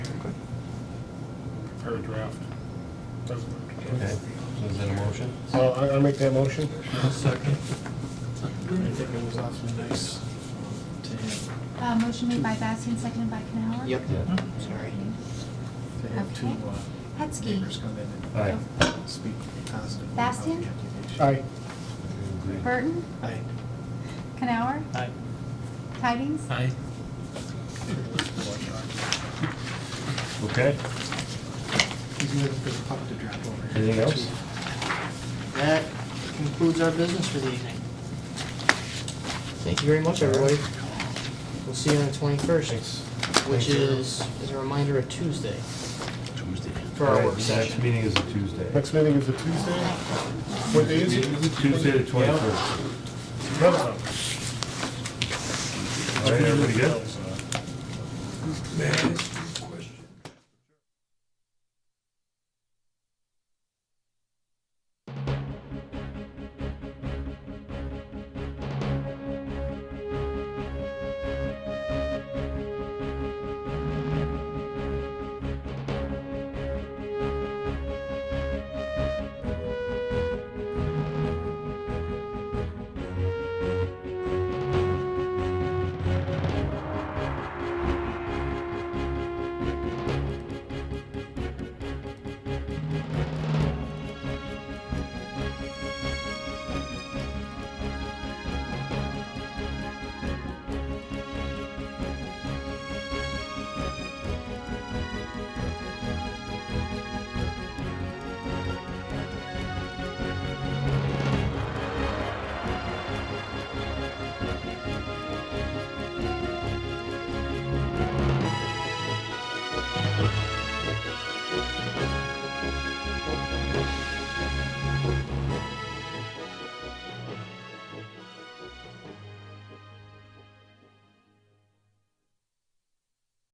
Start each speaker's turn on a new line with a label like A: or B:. A: or draft.
B: Okay, so is that a motion?
A: Well, I, I make that motion.
B: Second.
C: I think it was awfully nice to have,
D: Uh, motion made by Bastian, seconded by Canower.
E: Yep.
B: Yeah.
E: Sorry.
C: to have two uh, neighbors
D: Hetzke.
C: come in
B: Aye.
C: and speak positively. about the
D: Bastian?
C: application.
A: Aye.
D: Burton,
C: Aye.
D: Canower,
F: Aye.
D: Tidings.
F: Aye.
B: Okay,
C: He's looking for the puck to drop over here.
B: anything else?
E: That concludes our business for the evening. Thank you very much, everybody. We'll see you on the twenty-first,
B: Thanks.
E: which
B: Thank you.
E: is, as a reminder, a Tuesday
G: Tuesday.
E: for
B: All
E: our
B: right,
E: work
B: Next
E: session.
B: meeting is a Tuesday.
A: Next meeting is a Tuesday? What day is it?
B: Tuesday the twenty-first.
A: Eleven.
B: All right, everybody good?